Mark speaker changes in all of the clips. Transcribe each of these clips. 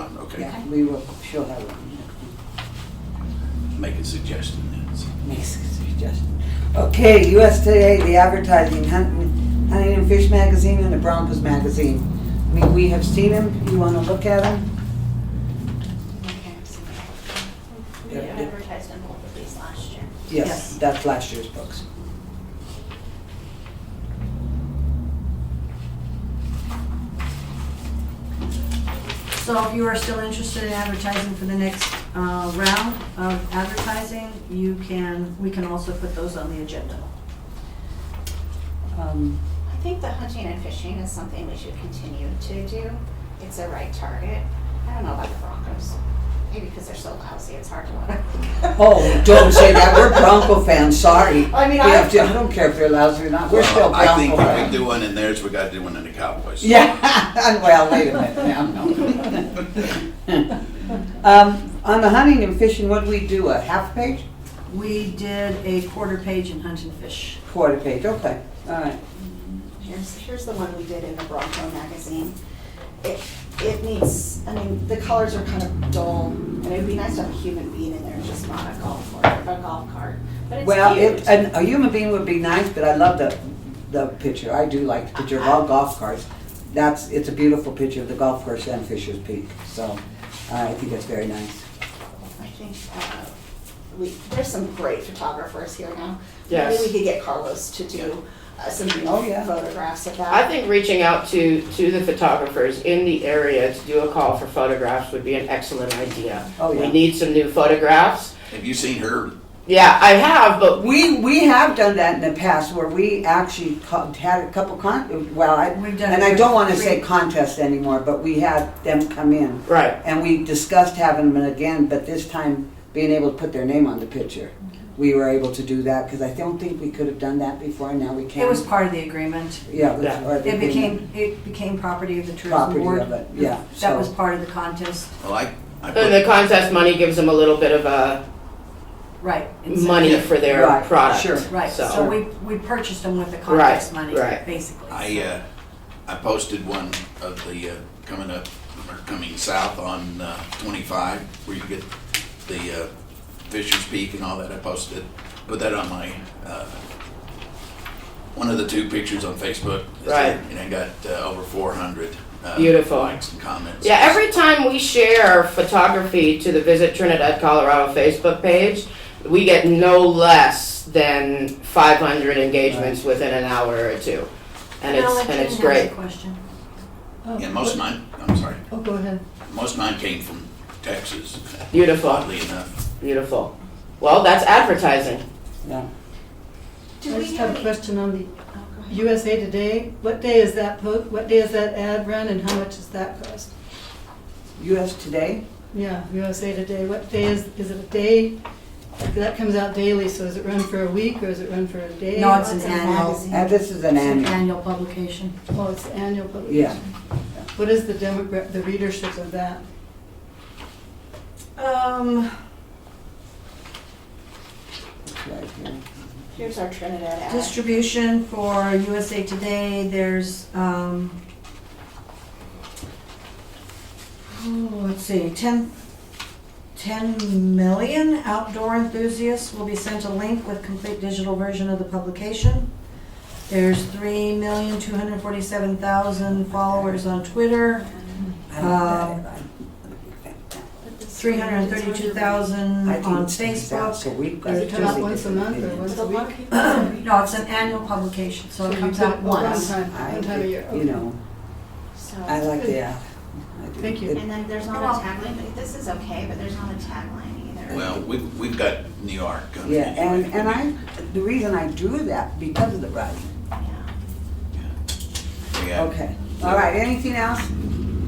Speaker 1: Okay,
Speaker 2: Yeah, we will, she'll have it.
Speaker 1: make a suggestion then.
Speaker 2: Makes a suggestion. Okay, US Today, the advertising, Hun- Huntington Fish Magazine and the Broncos Magazine. I mean, we have seen them, you wanna look at them?
Speaker 3: We advertised in both of these last year.
Speaker 2: Yes, that's last year's books.
Speaker 4: So if you are still interested in advertising for the next uh, round of advertising, you can, we can also put those on the agenda.
Speaker 2: Um,
Speaker 3: I think the hunting and fishing is something we should continue to do. It's the right target. I don't know about the Broncos. Maybe because they're so lousy, it's hard to want to.
Speaker 2: Oh, don't say that, we're Bronco fans, sorry.
Speaker 3: I mean,
Speaker 2: We
Speaker 3: I-
Speaker 2: have to- I don't care if they're lousy or not, we're still
Speaker 1: Well, I think
Speaker 2: Bronco
Speaker 1: if we
Speaker 2: fans.
Speaker 1: do one in theirs, we gotta do one in the Cowboys.
Speaker 2: Yeah, well, wait a minute now, no. Um, on the hunting and fishing, what do we do, a half page,
Speaker 4: We did a quarter page in Hunt and Fish.
Speaker 2: quarter page, okay, all right.
Speaker 3: Here's, here's the one we did in the Bronco magazine. It, it needs, I mean, the colors are kind of dull, and it'd be nice to have a human being in there, just not a golf cart, a golf cart. But it's
Speaker 2: Well,
Speaker 3: cute.
Speaker 2: it, an- a human being would be nice, but I love the, the picture, I do like the picture of all
Speaker 4: Uh-huh.
Speaker 2: golf carts. That's, it's a beautiful picture of the golf course and Fisher's Peak, so uh, I think that's very nice.
Speaker 3: I think, uh, we, there's some great photographers here now.
Speaker 5: Yes.
Speaker 3: Maybe we could get Carlos to do uh, some
Speaker 2: Oh, yeah.
Speaker 3: photographs of that.
Speaker 5: I think reaching out to, to the photographers in the area to do a call for photographs would be an excellent idea.
Speaker 2: Oh,
Speaker 5: We
Speaker 2: yeah.
Speaker 5: need some new photographs.
Speaker 1: Have you seen her?
Speaker 5: Yeah, I have, but
Speaker 2: We, we have done that in the past where we actually co- had a couple con, well, I,
Speaker 4: We've done.
Speaker 2: and I don't wanna
Speaker 4: three-
Speaker 2: say contest anymore, but we had them come in.
Speaker 5: right,
Speaker 2: And we discussed having them again, but this time being able to put their name on the picture. We were able to do that, cause I don't think we could have done that before, and now we can.
Speaker 4: It was part of the agreement.
Speaker 2: Yeah, it was.
Speaker 5: Yeah.
Speaker 2: or the
Speaker 4: It became, it became property of the tourism
Speaker 2: Property
Speaker 4: board.
Speaker 2: of it, yeah,
Speaker 4: That
Speaker 2: so-
Speaker 4: was part of the contest,
Speaker 1: Well, I, I
Speaker 5: and
Speaker 1: put,
Speaker 5: the contest money gives them a little bit of a
Speaker 4: right. It's-
Speaker 5: money for their
Speaker 2: Right,
Speaker 5: product,
Speaker 2: sure.
Speaker 4: Right, so we, we purchased them with the contest money,
Speaker 5: right.
Speaker 4: basically.
Speaker 1: I, uh, I posted one of the, uh, coming up, or coming south on, uh, twenty-five, where you get the, uh, Fisher's Peak and all that. I posted, put that on my, uh, one of the two pictures on Facebook.
Speaker 5: Right.
Speaker 1: And I got, uh, over four hundred. uh,
Speaker 5: Beautiful.
Speaker 1: Likes and comments.
Speaker 5: Yeah, every time we share photography to the Visit Trinidad, Colorado Facebook page, we get no less than 500 engagements within an hour or two. And
Speaker 4: Now,
Speaker 5: it's,
Speaker 4: let
Speaker 5: and it's
Speaker 4: Jean ask
Speaker 5: great.
Speaker 4: a question.
Speaker 6: Oh,
Speaker 1: Yeah, most of mine, I'm sorry,
Speaker 2: Oh, go ahead.
Speaker 1: most of mine came from Texas,
Speaker 5: Beautiful,
Speaker 1: oddly enough.
Speaker 5: beautiful. Well, that's advertising.
Speaker 2: Yeah.
Speaker 3: Do
Speaker 6: I
Speaker 3: we
Speaker 6: just have
Speaker 3: have
Speaker 6: a
Speaker 3: any?
Speaker 6: question on the
Speaker 3: oh, go ahead.
Speaker 6: USA Today. What day is that po, what day is that ad run and how much does that cost?
Speaker 2: US Today,
Speaker 6: Yeah, USA Today, what day is, is it a day? That comes out daily, so is it run for a week or is it run for a day?
Speaker 4: No, it's an
Speaker 3: It's a
Speaker 4: annual,
Speaker 3: magazine.
Speaker 2: and Uh, this is an
Speaker 4: it's an
Speaker 2: annual,
Speaker 4: annual publication.
Speaker 6: Oh, it's annual
Speaker 2: yeah.
Speaker 6: publication. What is the demogra, the readership of that?
Speaker 4: Um,
Speaker 2: it's right here.
Speaker 3: Here's our Trinidad ad.
Speaker 4: distribution for USA Today, there's, um, oh, let's see, 10, 10 million outdoor enthusiasts will be sent a link with complete digital version of the publication. There's 3,247,000 followers on Twitter,
Speaker 2: I
Speaker 6: Uh,
Speaker 2: don't know.
Speaker 4: 332,000
Speaker 2: I
Speaker 4: on
Speaker 2: think it's out,
Speaker 4: Facebook.
Speaker 2: So we've got.
Speaker 6: Does it come out
Speaker 2: two
Speaker 6: once a month or
Speaker 2: different
Speaker 6: once
Speaker 2: things.
Speaker 6: a week?
Speaker 4: No, it's an annual publication, so it
Speaker 6: you
Speaker 4: comes
Speaker 6: put
Speaker 4: out
Speaker 6: it
Speaker 4: once.
Speaker 6: One time, one time a year.
Speaker 2: I- You know,
Speaker 3: So-
Speaker 2: I like that.
Speaker 6: Thank you.
Speaker 3: And then there's not a tagline, this is okay, but there's not a tagline either.
Speaker 1: Well, we've, we've got New York. um,
Speaker 2: Yeah,
Speaker 1: anyway.
Speaker 2: and, and I, the reason I do that because of the writing.
Speaker 3: Yeah.
Speaker 1: We have-
Speaker 2: Okay, all right, anything else?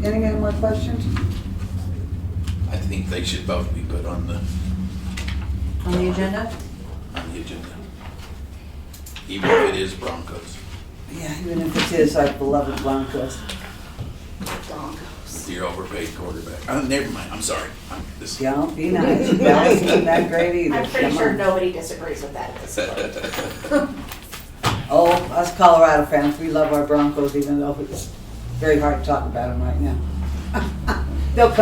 Speaker 2: Any other more questions?
Speaker 1: I think they should both be put on the,
Speaker 4: On the agenda?
Speaker 1: on the agenda. Even if it is Broncos,
Speaker 2: Yeah, even if it is our beloved Broncos.
Speaker 3: Broncos.
Speaker 1: your overpaid quarterback. Oh, never mind, I'm sorry. I'm- this-
Speaker 2: Don't be nice, that isn't that great either.
Speaker 3: I'm pretty
Speaker 2: Come
Speaker 3: sure
Speaker 2: on.
Speaker 3: nobody disagrees with that at this point.
Speaker 2: Oh, us Colorado fans, we love our Broncos even though it's very hard to talk about them right now. They'll come